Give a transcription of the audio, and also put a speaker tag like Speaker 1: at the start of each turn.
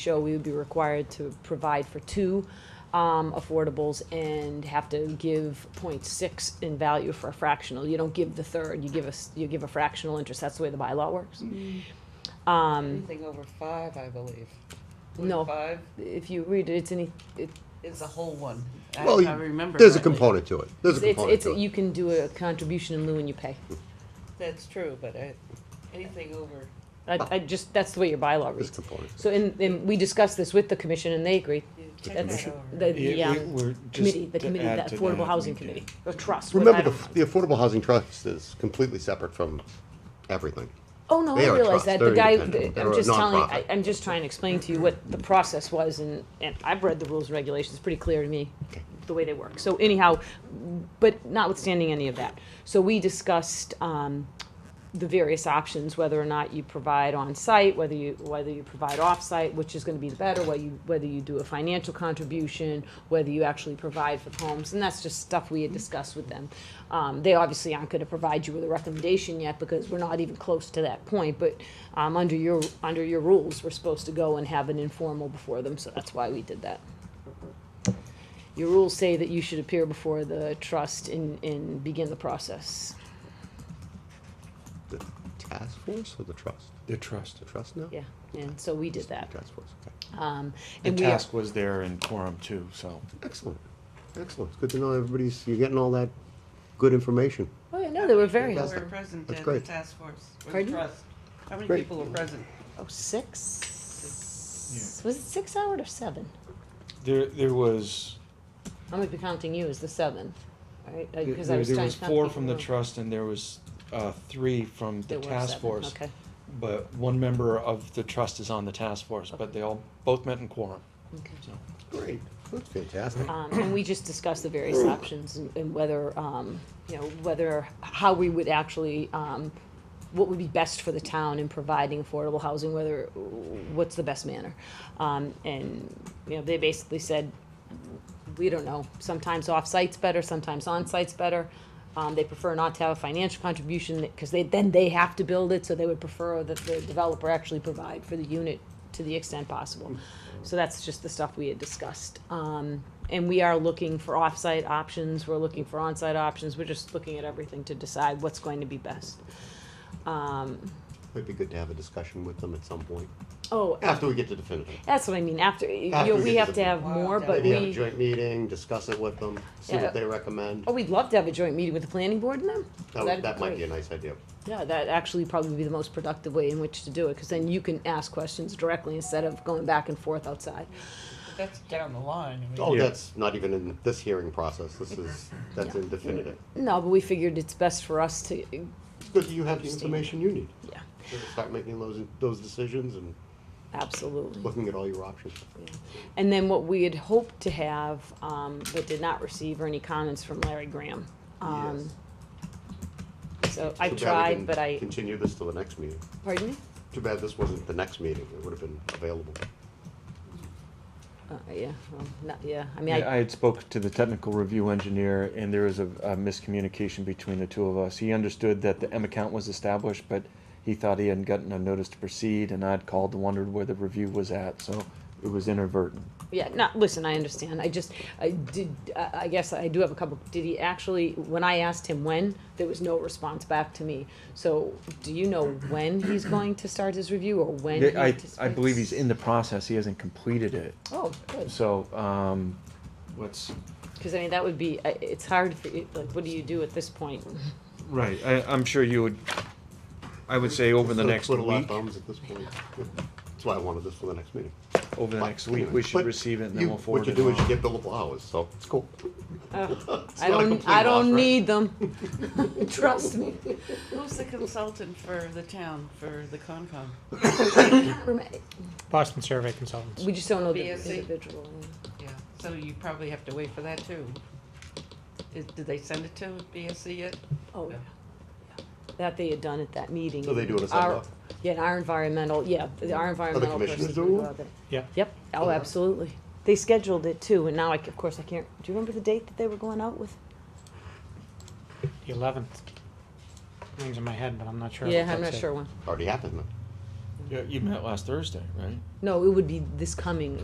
Speaker 1: show we would be required to provide for two um, affordables and have to give 0.6 in value for a fractional. You don't give the third, you give us, you give a fractional interest. That's the way the bylaw works. Um,
Speaker 2: Anything over five, I believe.
Speaker 1: No.
Speaker 2: Five
Speaker 1: if you read it, it's any, it,
Speaker 2: is a whole one. I-
Speaker 3: Well,
Speaker 2: I remember.
Speaker 3: there's a
Speaker 2: correctly.
Speaker 3: component to it. There's a
Speaker 1: it's,
Speaker 3: component
Speaker 1: it's,
Speaker 3: to it.
Speaker 1: you can do a contribution in lieu and you pay.
Speaker 2: That's true, but I, anything over,
Speaker 1: I, I just, that's the way your bylaw
Speaker 3: There's a
Speaker 1: reads.
Speaker 3: component. to
Speaker 1: So, and, and we discussed this with the commission and they agreed.
Speaker 2: you check that
Speaker 1: That's
Speaker 2: over.
Speaker 1: the, the,
Speaker 4: Yeah, we-
Speaker 1: um,
Speaker 4: we're just
Speaker 1: committee, the
Speaker 4: to
Speaker 1: committee,
Speaker 4: add
Speaker 1: the
Speaker 4: to
Speaker 1: Affordable
Speaker 4: that,
Speaker 1: Housing
Speaker 4: we did.
Speaker 1: Committee, or trust.
Speaker 3: it.
Speaker 1: what- I
Speaker 3: Remember,
Speaker 1: don't
Speaker 3: the,
Speaker 1: know.
Speaker 3: the Affordable Housing Trust is completely separate from everything.
Speaker 1: Oh, no,
Speaker 3: They
Speaker 1: I
Speaker 3: are a
Speaker 1: realize
Speaker 3: trust.
Speaker 1: that. The
Speaker 3: They're
Speaker 1: guy,
Speaker 3: independent.
Speaker 1: I'm
Speaker 3: They're a
Speaker 1: just telling, I,
Speaker 3: nonprofit.
Speaker 1: I'm just trying to explain to you what the process was and, and I've read the rules and regulations, pretty clear to me, the way they work. So anyhow, but notwithstanding any of that, so we discussed, um, the various options, whether or not you provide on-site, whether you, whether you provide off-site, which is gonna be the better, whether you, whether you do a financial contribution, whether you actually provide for the homes, and that's just stuff we had discussed with them. Um, they obviously aren't gonna provide you with a recommendation yet, because we're not even close to that point, but, um, under your, under your rules, we're supposed to go and have an informal before them, so that's why we did that. Your rules say that you should appear before the trust and, and begin the process.
Speaker 3: The task force or the trust?
Speaker 4: The trust.
Speaker 3: The trust now?
Speaker 1: Yeah, and so we did that.
Speaker 3: Task force, okay.
Speaker 1: Um,
Speaker 4: The
Speaker 1: and we are-
Speaker 4: task was there in quorum too, so.
Speaker 3: Excellent, excellent. It's good to know everybody's, you're getting all that good information.
Speaker 1: Oh, yeah, no, they were very
Speaker 2: People
Speaker 3: That's-
Speaker 1: helpful.
Speaker 2: Were present
Speaker 3: that's
Speaker 2: at the
Speaker 3: great.
Speaker 2: task force, or the
Speaker 1: Pardon?
Speaker 2: trust. How many
Speaker 3: Great.
Speaker 2: people were present?
Speaker 1: Oh, six? Was it six hours or seven?
Speaker 4: There, there was,
Speaker 1: I'm gonna be counting you as the seventh, right? Uh, 'cause I
Speaker 4: there there
Speaker 1: trying
Speaker 4: was
Speaker 1: to count
Speaker 4: four
Speaker 1: people
Speaker 4: from the
Speaker 1: who-
Speaker 4: trust and there was, uh, three from the
Speaker 1: There were
Speaker 4: task
Speaker 1: seven,
Speaker 4: force.
Speaker 1: Okay,
Speaker 4: But one member of the trust is on the task force, but they all, both met in quorum,
Speaker 1: okay.
Speaker 4: so.
Speaker 3: Great, that's fantastic.
Speaker 1: Um, and we just discussed the various options and, and whether, um, you know, whether, how we would actually, um, what would be best for the town in providing affordable housing, whether, what's the best manner? Um, and, you know, they basically said, we don't know, sometimes off-site's better, sometimes on-site's better. Um, they prefer not to have a financial contribution, because they, then they have to build it, so they would prefer that the developer actually provide for the unit to the extent possible. So that's just the stuff we had discussed. Um, and we are looking for off-site options, we're looking for on-site options, we're just looking at everything to decide what's going to be best. Um,
Speaker 3: It'd be good to have a discussion with them at some point,
Speaker 1: oh,
Speaker 3: after we get to definitive.
Speaker 1: that's what I mean, after, you
Speaker 3: After
Speaker 1: know,
Speaker 3: we
Speaker 1: we
Speaker 3: get
Speaker 1: have
Speaker 3: to
Speaker 1: to
Speaker 3: the-
Speaker 1: have more, but
Speaker 3: Maybe have a
Speaker 1: we,
Speaker 3: joint meeting, discuss it with them, see
Speaker 1: Yeah.
Speaker 3: what they recommend.
Speaker 1: oh, we'd love to have a joint meeting with the planning board and them.
Speaker 3: That,
Speaker 1: That'd
Speaker 3: would- that might
Speaker 1: great.
Speaker 3: be a nice idea.
Speaker 1: Yeah, that actually probably be the most productive way in which to do it, because then you can ask questions directly instead of going back and forth outside.
Speaker 2: But That's down the line. I
Speaker 3: Oh,
Speaker 2: mean,
Speaker 4: Yeah.
Speaker 3: that's not even in this hearing process, this is, that's in definitive.
Speaker 1: No, but we figured it's best for us to, yeah,
Speaker 3: It's good that you have the information you need. to Start making those, those decisions and
Speaker 1: absolutely.
Speaker 3: looking at all your options.
Speaker 1: And then what we had hoped to have, um, but did not receive, are any comments from Larry Graham. Um, So I
Speaker 3: Too bad we
Speaker 1: tried,
Speaker 3: didn't
Speaker 1: but I,
Speaker 3: Continue this till the next meeting.
Speaker 1: pardon me?
Speaker 3: Too bad this wasn't the next meeting, it would have been available.
Speaker 1: Uh, yeah, well, not, yeah, I mean,
Speaker 4: Yeah, I
Speaker 1: I,
Speaker 4: had spoke to the technical review engineer, and there was a, a miscommunication between the two of us. He understood that the M account was established, but he thought he hadn't gotten a notice to proceed, and I'd called and wondered where the review was at, so it was inadvertent.
Speaker 1: yeah, not, listen, I understand, I just, I did, I, I guess I do have a couple, did he actually, when I asked him when, there was no response back to me. So, do you know when he's going to start his review, or when? he
Speaker 4: I, I
Speaker 1: anticipates-
Speaker 4: believe he's in the process, he hasn't completed it.
Speaker 1: Oh, good,
Speaker 4: So, um, what's,
Speaker 1: because I mean, that would be, I- it's hard, for you- like, what do you do at this point?
Speaker 4: right, I, I'm sure you would, I would say over the
Speaker 3: Sort of
Speaker 4: next
Speaker 3: twiddle our
Speaker 4: week,
Speaker 3: thumbs at this point. That's why I wanted this for the next meeting.
Speaker 4: over the
Speaker 3: But
Speaker 4: next week,
Speaker 3: anyway,
Speaker 4: we should
Speaker 3: but
Speaker 4: receive it and
Speaker 3: you-
Speaker 4: then we'll forward it
Speaker 3: What you do is you
Speaker 4: on.
Speaker 3: get billable hours, so it's cool.
Speaker 1: I
Speaker 3: not a
Speaker 1: don't,
Speaker 3: complete
Speaker 1: I
Speaker 3: loss,
Speaker 1: don't
Speaker 3: right?
Speaker 1: need them, trust me.
Speaker 2: Who's the consultant for the town, for the Concom?
Speaker 5: Boston Survey Consultants.
Speaker 1: We just don't know the
Speaker 2: BSC.
Speaker 1: individual.
Speaker 2: Yeah, so you probably have to wait for that too. Is- Did they send it to BSC yet?
Speaker 1: Oh,
Speaker 2: Yeah.
Speaker 1: yeah. That they had done at that meeting.
Speaker 3: So they do it as a
Speaker 1: Our-
Speaker 3: lot?
Speaker 1: Yeah, and our environmental, yeah, the- our environmental
Speaker 3: commissioners
Speaker 1: person.
Speaker 3: do it?
Speaker 1: brought it.
Speaker 5: Yeah.
Speaker 1: Yep, oh, absolutely. They scheduled it too, and now I, c- of course, I can't, do you remember the date that they were going out with?
Speaker 5: The eleventh. Rings in my head, but I'm not sure.
Speaker 1: Yeah,
Speaker 5: what
Speaker 1: I'm
Speaker 5: that's
Speaker 1: not
Speaker 5: it.
Speaker 1: sure when.
Speaker 3: Already happened,
Speaker 4: Yeah, you met last Thursday, right?
Speaker 1: No, it would be this coming